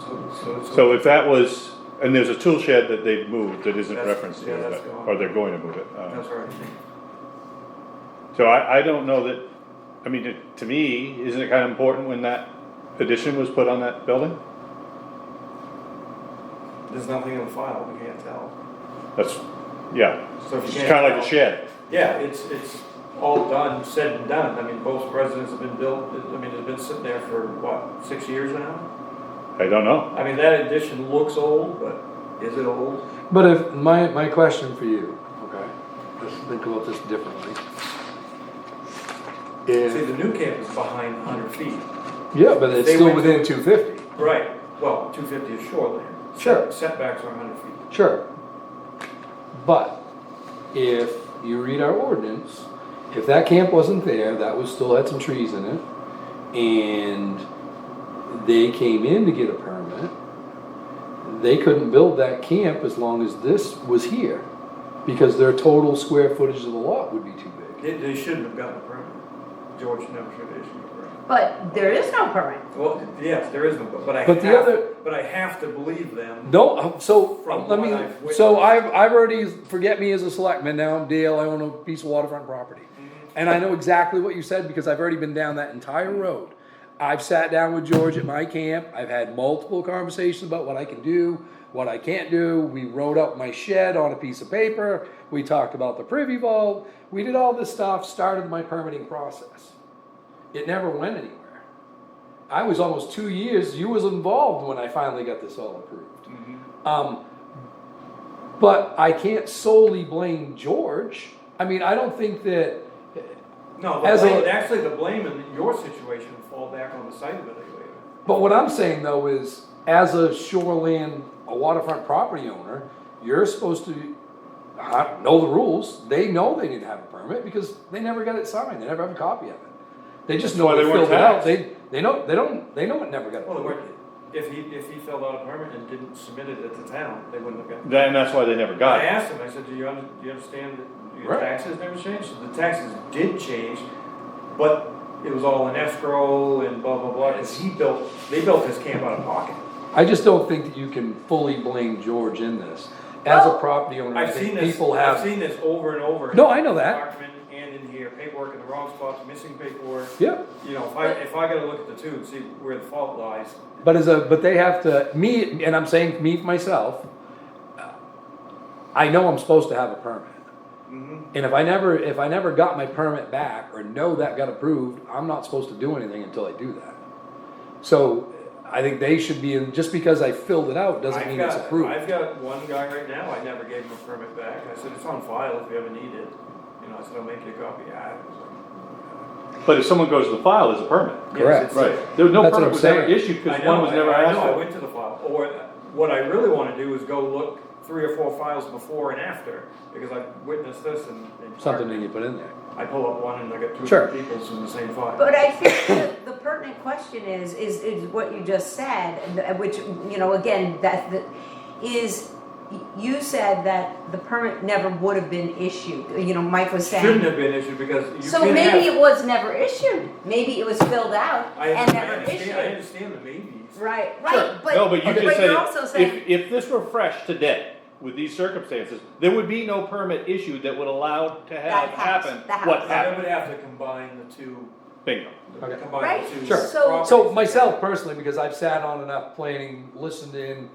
So, so, So if that was, and there's a tool shed that they've moved that isn't That's- referenced yeah, here, that's but- gone. or they're going to move it. um, that's right. So I, I don't know that, I mean, to- to me, isn't it kind of important when that addition was put on that building? There's nothing in the file, we can't tell. That's, yeah, So if it's you can't. kind of like tell- the shed. Yeah, it's, it's all done, said and done. I mean, both presidents have been built, I mean, it's been sitting there for, what, six years now? I don't know. I mean, that addition looks old, but is it old? But if, my, my question for you, okay, let's think about this differently. See, If, the new camp is behind hundred feet. yeah, but it's They still went- within two fifty, Right, well, two fifty is shoreline. Sure. Setbacks are hundred feet. sure. But if you read our ordinance, if that camp wasn't there, that was, still had some trees in it, and they came in to get a permit, they couldn't build that camp as long as this was here, because their total square footage of the lot would be too big. They, they shouldn't have gotten a permit. George never should have issued a permit. But there is no permit. Well, yes, there is no, but- but I But the have, other- but I have to believe them. No, um, so, From what let I've me, witnessed. so I've, I've already, forget me as a selectman, now I'm Dale, I own a piece of waterfront property. Mm-hmm. And I know exactly what you said, because I've already been down that entire road. I've sat down with George at my camp, I've had multiple conversations about what I can do, what I can't do, we wrote up my shed on a piece of paper, we talked about the privy vault, we did all this stuff, started my permitting process. It never went anywhere. I was almost two years, you was involved when I finally got this all approved. Um, but I can't solely blame George. I mean, I don't think that, No, the As a- blame, actually, the blame in your situation would fall back on the site evaluator. but what I'm saying though is, as a shoreland, a waterfront property owner, you're supposed to uh, know the rules. They know they didn't have a permit because they never got it signed. They never have a copy of it. They just know That's why they they weren't filled it out. taxed. They, they know, they don't, they know it never got Well, they approved. weren't, if he, if he filled out a permit and didn't submit it at the town, they wouldn't have gotten. That- And that's why they never got I it. asked him, I said, do you, under- do you understand that your Right. taxes never changed? The taxes did change, but it was all in escrow and blah, blah, blah, and he built, they built his camp out of pocket. I just don't think that you can fully blame George in this. As a Well- property owner, I I've seen think this, people I've have, seen this over and over. No, I know that. Document And in here, paperwork in the wrong spots, missing paperwork. yeah. You know, if I, if I gotta look at the two and see where the fault lies, But as a, but they have to, me, and I'm saying me, myself, I know I'm supposed to have a permit. Mm-hmm. And if I never, if I never got my permit back or know that got approved, I'm not supposed to do anything until I do that. So I think they should be in, just because I filled it out doesn't I've mean it's got- approved. I've got one guy right now, I never gave him a permit back, I said, it's on file if you ever need it, you know, I said, I'll make you a copy, yeah. it was like- But if someone goes to the file, there's a permit. Correct. Yes, it's- There was no That's what permit I'm was ever saying. issued I because know, one was I- never I asked know, I for. went to the file, or what I really wanna do is go look three or four files before and after, because I witnessed this and. and Something that you put in there. I pull up one and I got two Sure. people's in the same file. But I think the, the pertinent question is, is, is what you just said, th- which, you know, again, that, that is, y- you said that the permit never would have been issued, you know, Mike was Shouldn't saying. have been issued because you So can't maybe have. it was never issued, maybe it was filled out I, and I never understand, I issued. understand the maybes. Right, Sure. right, but, No, but you but just you're also said, saying, if, if this were fresh today, with these circumstances, there would be no permit issued that would allow to have That house, happen that what house. I happened. would have to combine the two, Bingo. Okay. combine Right, the two. Sure. so- So myself personally, because I've sat on enough planning, listened in,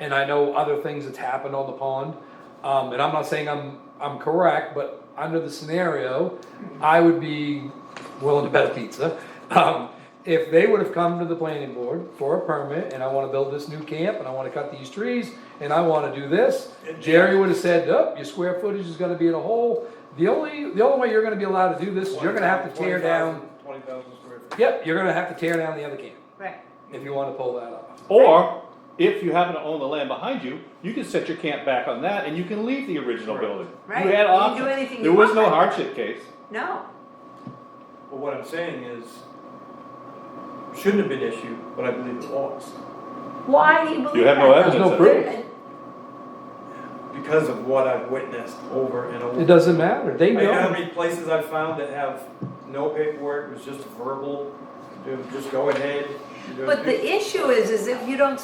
and I know other things that's happened on the pond. Um, and I'm not saying I'm, I'm correct, but under the scenario, I would be willing to bet a pizza. Um, if they would have come to the planning board for a permit, and I wanna build this new camp, and I wanna cut these trees, and I wanna do this, Jerry would have said, nope, your square footage is gonna be in a hole. The only, the only way you're gonna be allowed to do this is you're gonna have to tear down, Twenty thousand square feet. yep, you're gonna have to tear down the other camp right, if you wanna pull that off. Or, if you happen to own the land behind you, you can set your camp back on that and you can leave the original Right. building. Right. You You can had do options. anything you There was no want. hardship case. no, But what I'm saying is, shouldn't have been issued, but I believe it was, why do you believe that? You have no evidence. of no it. proof. because of what I've witnessed over and It over. doesn't matter, they I know how know. many places I've found that have no paperwork, it was just verbal, you know, just go ahead. you know, But the issue is, is if you don't